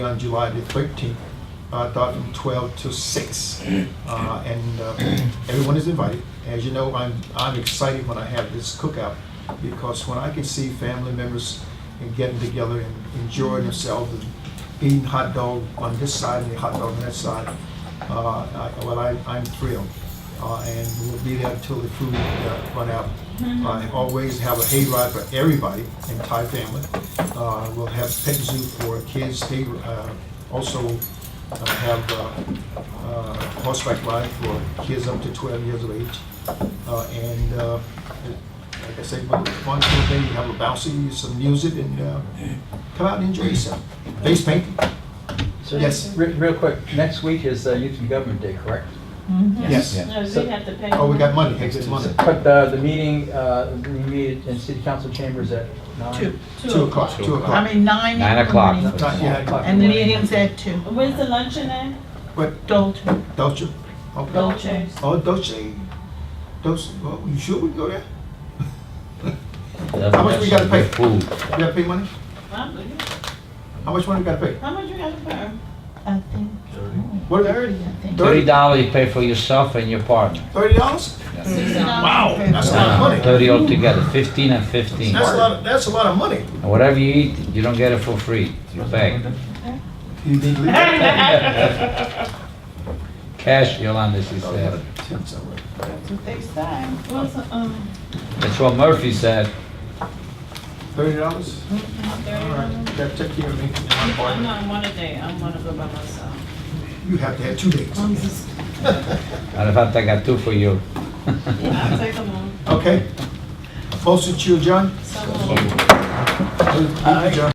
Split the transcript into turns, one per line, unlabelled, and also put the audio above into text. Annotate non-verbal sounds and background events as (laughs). on July the 13th, uh, thought from 12 to 6. Uh, And uh, (clears throat) everyone is invited. As you know, I'm, I'm excited when I have this cookout because when I can see family members and getting together and enjoying themselves and eating hot dog on this side and the hot dog on that side, uh, I- well, I- I'm thrilled. Uh, And we'll be there until the food uh, run out. I Always have a hayride for everybody in Thai family. Uh, We'll have pet zoo for kids. They uh, also uh, have uh, uh, horseback ride for kids up to 12 years of age. Uh, And uh, like I say, one one full day, you have a bouncy, some music, and uh, come out and enjoy yourself. Face painting?
So,
Yes.
re- Real quick, next week is uh, Youth and Government Day, correct?
Yes.
No,
So-
we have to pay.
Oh, we got
them.
money, extra money.
But uh, the meeting, uh, we meet in City Council chambers at nine?
Two.
Two o'clock, two o'clock.
I mean, nine.
Nine
in the
o'clock.
morning.
Not yet.
And the meeting's at two.
When's the luncheon at?
But
Dalton.
Dolce? Okay.
Dolce.
Oh, Dolce, Dolce, well, you sure we go there? How much we gotta pay?
Food.
You gotta pay money?
I'm looking.
How much money we gotta pay?
How much you got to pay?
I think
What,
thirty. I think.
Thirty?
Thirty dollars you pay for yourself and your partner.
thirty dollars?
Wow.
That's a lot of money.
Thirty altogether, fifteen and fifteen.
That's a lot, of- that's a lot of (laughs) money.
And whatever you eat, you don't get it for free. You
(laughs)
pay.
You need to leave that
Cash, Yolanda, she
Oh,
said.
yeah, ten somewhere.
That's what they say.
What's, the, um,
That's what Murphy said.
Thirty dollars? All right,
thirty?
that take care of me and my
I'm
partner.
not one a day, I'm gonna go by myself.
You have to have two days.
I'm just,
Matter of fact, I got two for you. (laughs)
I'll take them on.
Okay? Motion to adjourn?
Someone-
Adjourn.